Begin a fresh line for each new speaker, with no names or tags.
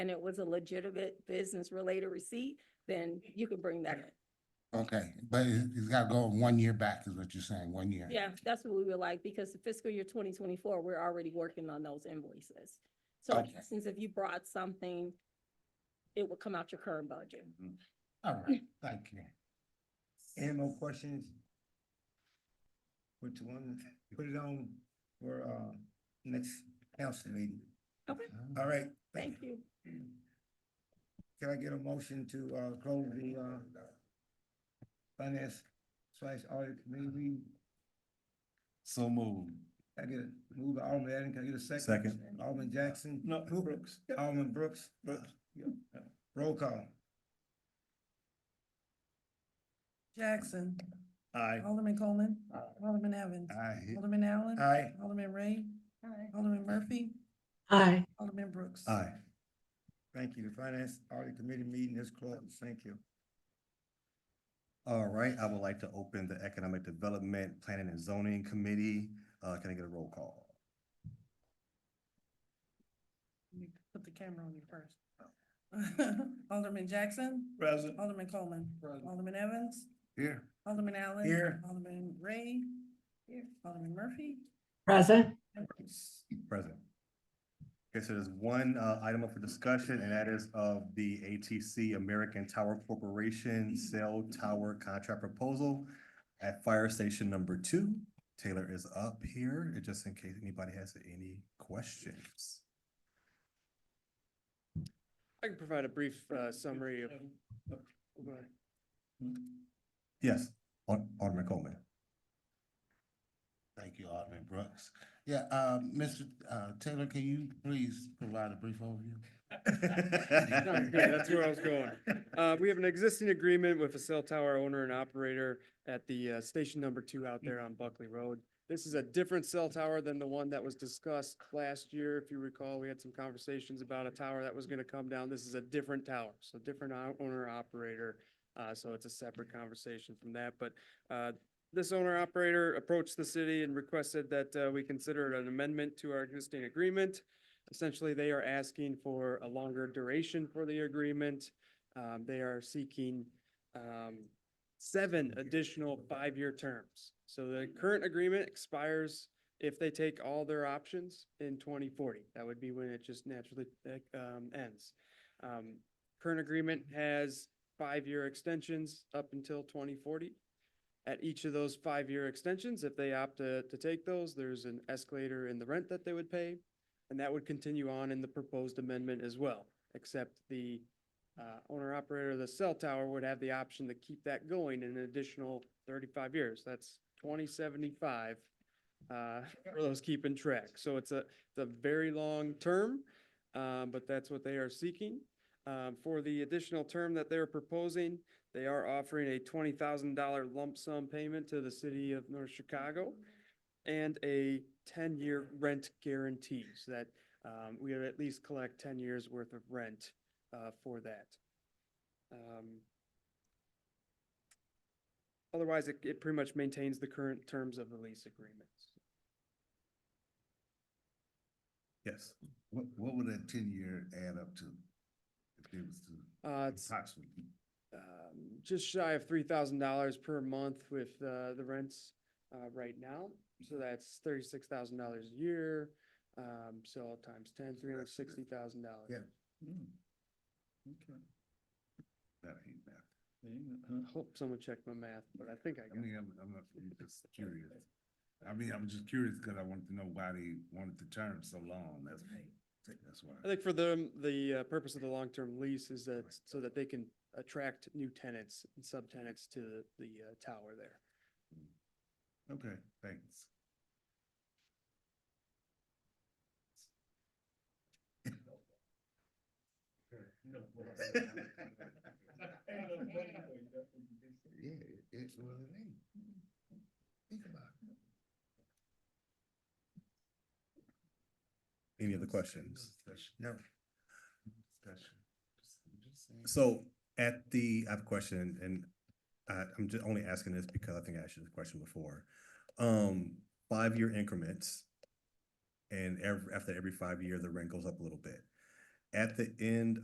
and it was a legitimate business related receipt, then you can bring that in.
Okay, but it- it's got to go one year back is what you're saying, one year.
Yeah, that's what we would like, because the fiscal year twenty twenty-four, we're already working on those invoices. So
Okay.
since if you brought something, it would come out your current budget.
Mm-hmm. All right, thank you.
Any more questions? Put one, put it on for, uh, next council meeting.
Okay.
All right.
Thank you.
Can I get a motion to, uh, close the, uh, finance slash audit committee?
So moved.
Can I get a move by Alderman Adams, can I get a second?
Second.
Alderman Jackson?
No, Brooks.
Alderman Brooks? Brooks. Roll call.
Jackson,
Aye.
Alderman Coleman, Alderman Evans,
Aye.
Alderman Allen.
Aye.
Alderman Ray. Alderman Murphy,
Aye.
Alderman Brooks.
Aye.
Thank you. The finance audit committee meeting is closed. Thank you.
All right, I would like to open the Economic Development Planning and Zoning Committee. Uh, can I get a roll call?
You Put the camera on you first. Alderman Jackson,
Present.
Alderman Coleman, Alderman Evans,
Here.
Alderman Allen.
Here.
Alderman Ray. Alderman Murphy.
Present.
Present. Okay, so there's one, uh, item up for discussion, and that is of the ATC American Tower Corporation Cell Tower Contract Proposal at Fire Station Number Two. Taylor is up here, just in case anybody has any questions.
I can provide a brief uh, summary of. Go ahead.
Yes, Al- Alderman Coleman.
Thank you, Alderman Brooks. Yeah, uh, Mr. uh, Taylor, can you please provide a brief overview?
No, yeah, That's where I was going. Uh, We have an existing agreement with a cell tower owner and operator at the uh, station number two out there on Buckley Road. This is a different cell tower than the one that was discussed last year. If you recall, we had some conversations about a tower that was going to come down. This is a different tower, so different o- owner operator. Uh, So it's a separate conversation from that, but uh, this owner operator approached the city and requested that uh, we consider it an amendment to our existing agreement. Essentially, they are asking for a longer duration for the agreement. Um, they are seeking, um, seven additional five-year terms. So the current agreement expires if they take all their options in twenty forty. That would be when it just naturally, uh, um, ends. Um, current agreement has five-year extensions up until twenty forty. At each of those five-year extensions, if they opt to, to take those, there's an escalator in the rent that they would pay. And that would continue on in the proposed amendment as well, except the uh, owner operator of the cell tower would have the option to keep that going an additional thirty-five years. That's twenty seventy-five uh, for those keeping track. So it's a, it's a very long term, uh, but that's what they are seeking. Um, For the additional term that they're proposing, they are offering a twenty thousand dollar lump sum payment to the city of North Chicago and a ten-year rent guarantee, so that um, we would at least collect ten years' worth of rent uh, for that. Um, Otherwise, it, it pretty much maintains the current terms of the lease agreements.
Yes.
What, what would that ten-year add up to? If it was to
Uh, it's
approximately?
um, just shy of three thousand dollars per month with uh, the rents uh, right now. So that's thirty-six thousand dollars a year. Um, So times ten, three hundred sixty thousand dollars.
Yeah. Okay.
That ain't bad.
I hope someone checked my math, but I think I
I
got it.
mean, I'm, I'm not- I'm just curious. I mean, I'm just curious because I wanted to know why they wanted the term so long. That's, that's why.
I think for them, the uh, purpose of the long-term lease is that, so that they can attract new tenants and subtenants to the- the uh, tower there.
Okay, thanks. Yeah, it's what it ain't. Think about it.
Any other questions?
No.
Discussion. Just saying.
So at the, I have a question and I, I'm just only asking this because I think I asked you this question before. Um, five-year increments. And ev- after every five year, the rent goes up a little bit. at the end